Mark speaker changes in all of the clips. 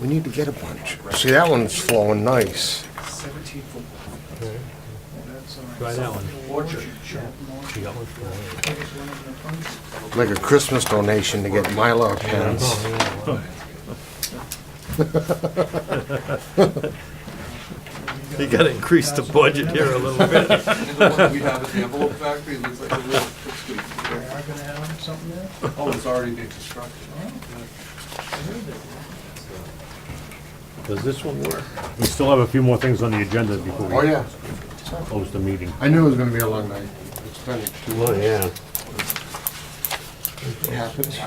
Speaker 1: We need to get a bunch. See, that one's flowing nice.
Speaker 2: Seventeen football. That's uh, all right.
Speaker 3: Try that one.
Speaker 2: Orchard.
Speaker 3: You got one for me.
Speaker 1: Make a Christmas donation to get Mylar pens.
Speaker 3: You gotta increase the budget here a little bit.
Speaker 4: And the one that we have at the envelope factory looks like a real, looks good.
Speaker 2: They are gonna have something there?
Speaker 4: Oh, it's already being constructed.
Speaker 3: Does this one work?
Speaker 5: We still have a few more things on the agenda before
Speaker 1: Oh,
Speaker 5: we
Speaker 1: yeah.
Speaker 5: close the meeting.
Speaker 1: I knew it was gonna be a long night. It's been,
Speaker 3: Well, yeah.
Speaker 1: it happens.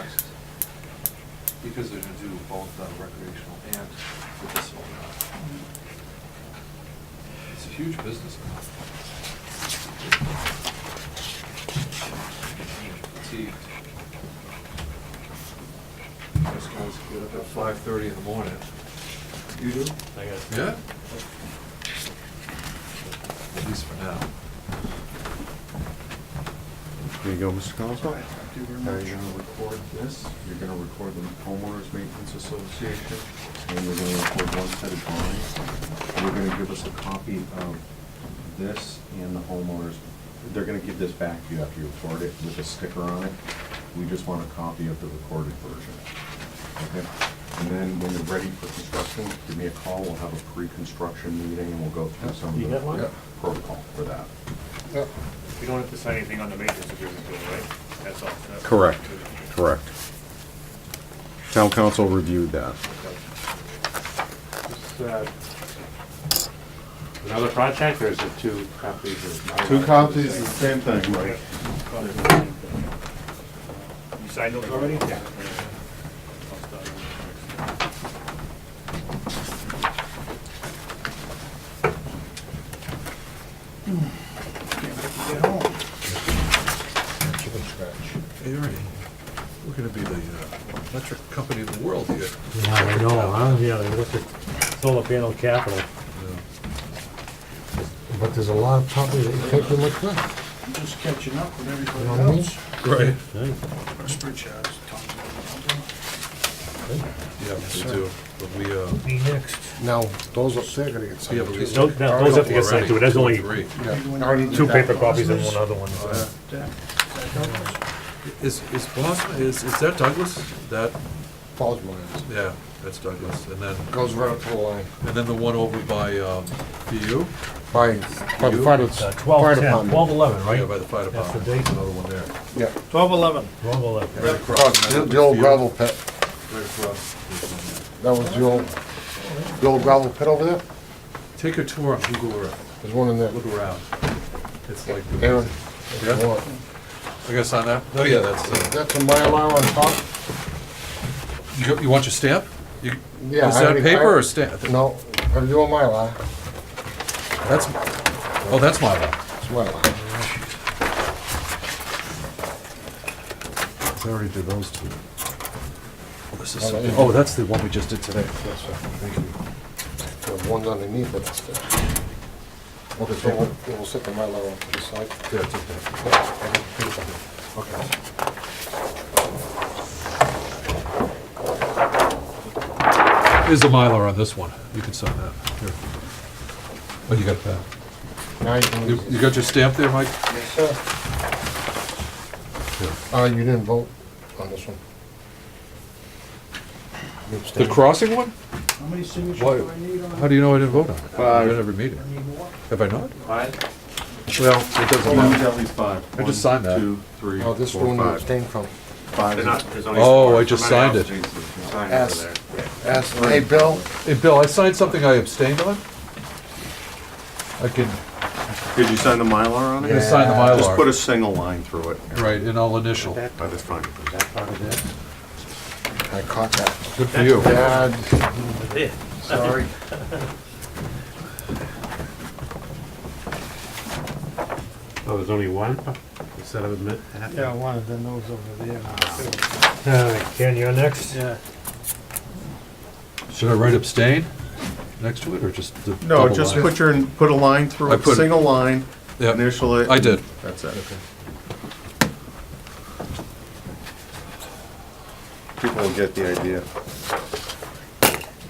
Speaker 4: Because they're gonna do both uh, recreational and medicinal now. It's a huge business now. Fatigued. Those guys get up at five thirty in the morning. You do?
Speaker 3: I got
Speaker 4: Yeah. At least for now.
Speaker 6: There you go, Mr. Colasar.
Speaker 4: Now you're gonna record this, you're gonna record the homeowners maintenance association, and you're gonna record one set of drawings. You're gonna give us a copy of this and the homeowners, they're gonna give this back to you after you record it with a sticker on it. We just want a copy of the recorded version. Okay? And then when you're ready for construction, give me a call, we'll have a pre-construction meeting and we'll go through some
Speaker 3: You got
Speaker 4: of
Speaker 3: one?
Speaker 4: the protocol for that.
Speaker 7: We don't have to sign anything on the maintenance agreement, though, right? That's all. that's-
Speaker 6: Correct, correct. Town council reviewed that.
Speaker 7: Is, uh, Another project, or is it two copies of?
Speaker 6: Two copies, is the same thing, right?
Speaker 7: You signed those already? Yeah.
Speaker 2: Get home.
Speaker 1: Chicken scratch.
Speaker 4: Hey, Ernie, we're gonna be the uh, electric company of the world here.
Speaker 3: Yeah, I know, huh? Yeah, what's it, solar panel capital.
Speaker 1: But there's a lot of property that you can't do much with.
Speaker 2: I'm just catching up with everybody
Speaker 1: You know what I mean?
Speaker 2: else.
Speaker 4: Right.
Speaker 3: Hey,
Speaker 2: Pritchard's talking about
Speaker 4: Yeah, we do, but we, uh,
Speaker 2: Me next.
Speaker 1: Now, those up there are gonna get
Speaker 4: we have
Speaker 1: signed
Speaker 4: at
Speaker 1: too.
Speaker 4: least.
Speaker 3: Those- now, those have to get signed too. There's only-
Speaker 4: Three.
Speaker 1: Yeah, I already did
Speaker 3: Two
Speaker 1: that.
Speaker 3: paper copies and one other one. so.
Speaker 2: That- that helps.
Speaker 4: Is, is Boston, is, is that Douglas? That,
Speaker 1: Falls mines.
Speaker 4: yeah, that's Douglas, and then,
Speaker 1: Goes right up to the line.
Speaker 4: and then the one over by, um, BU?
Speaker 1: By, by the fire,
Speaker 3: Uh,
Speaker 1: fire
Speaker 3: Twelve, ten, twelve,
Speaker 1: department.
Speaker 3: eleven,
Speaker 4: Yeah,
Speaker 3: right?
Speaker 4: by the fire
Speaker 3: That's the
Speaker 4: department,
Speaker 3: date.
Speaker 4: another one there.
Speaker 1: Yeah.
Speaker 3: Twelve, eleven. Twelve, eleven.
Speaker 4: Right across.
Speaker 1: Across the the old gravel pit.
Speaker 4: Right across. There's one there.
Speaker 1: That was the old, the old gravel pit over there.
Speaker 4: Take a tour on Google Earth,
Speaker 1: There's one in there.
Speaker 4: look around. It's like,
Speaker 1: Aaron,
Speaker 4: yeah,
Speaker 1: what?
Speaker 4: I guess on that, oh yeah, that's, uh,
Speaker 1: That's a Mylar on top?
Speaker 4: you, go- you want your stamp? You-
Speaker 1: Yeah,
Speaker 4: Is
Speaker 1: I
Speaker 4: that
Speaker 1: already-
Speaker 4: paper
Speaker 1: I-
Speaker 4: or stamp?
Speaker 1: No, I'm doing Mylar.
Speaker 4: That's, oh, that's my one.
Speaker 1: It's Mylar.
Speaker 6: I already did those two.
Speaker 4: This is
Speaker 1: Oh,
Speaker 4: something-
Speaker 1: yeah.
Speaker 4: oh, that's the one we just did today.
Speaker 1: There's one's underneath it. that's the- Okay, so we'll, we'll set the Mylar off to the side.
Speaker 4: Yeah, it's okay.
Speaker 1: Okay.
Speaker 4: Here's the Mylar on this one. You can sign that. Here. Oh, you got that.
Speaker 1: Now you can.
Speaker 4: You, you got your stamp there, Mike?
Speaker 1: Yes, sir. Uh, you didn't vote on this one. You
Speaker 4: The
Speaker 1: abstained.
Speaker 4: crossing one?
Speaker 2: How many signatures
Speaker 4: Why-
Speaker 2: do I need on?
Speaker 4: How do you know I didn't vote on it?
Speaker 1: Uh,
Speaker 4: Five. At every meeting.
Speaker 2: Need more?
Speaker 4: Have I not?
Speaker 7: Five?
Speaker 4: Well, it doesn't matter.
Speaker 6: least five.
Speaker 4: I just signed that.
Speaker 6: One, two, three,
Speaker 1: Oh, this
Speaker 6: four,
Speaker 1: one you
Speaker 6: five.
Speaker 1: abstained from.
Speaker 7: They're not- there's only
Speaker 4: Oh,
Speaker 7: four.
Speaker 4: I just
Speaker 7: Somebody
Speaker 4: signed
Speaker 7: else needs to sign over
Speaker 1: Ask,
Speaker 7: there.
Speaker 1: ask, hey, Bill,
Speaker 4: Hey, Bill, I signed something I abstained on? I can,
Speaker 6: Did you sign the Mylar on
Speaker 4: I'm gonna
Speaker 6: it?
Speaker 4: sign the
Speaker 1: Yeah.
Speaker 6: Just put a
Speaker 4: Mylar.
Speaker 6: single line through it.
Speaker 4: Right, and I'll initial.
Speaker 7: That-
Speaker 6: Oh, that's fine.
Speaker 7: that part of it?
Speaker 1: I caught that.
Speaker 4: Good for you.
Speaker 1: Dad,
Speaker 3: Yeah.
Speaker 1: sorry.
Speaker 7: Oh, there's only one? Instead of a minute?
Speaker 2: Yeah, one of them, those over there.
Speaker 3: All right, Ken, you're next?
Speaker 2: Yeah.
Speaker 4: Should I write abstain next to it, or just the
Speaker 6: No,
Speaker 4: double
Speaker 6: just
Speaker 4: line?
Speaker 6: put your, put a line through
Speaker 4: I
Speaker 6: it,
Speaker 4: put it.
Speaker 6: single line,
Speaker 4: Yeah,
Speaker 6: initial it.
Speaker 4: I did.
Speaker 6: That's it. People will get the idea.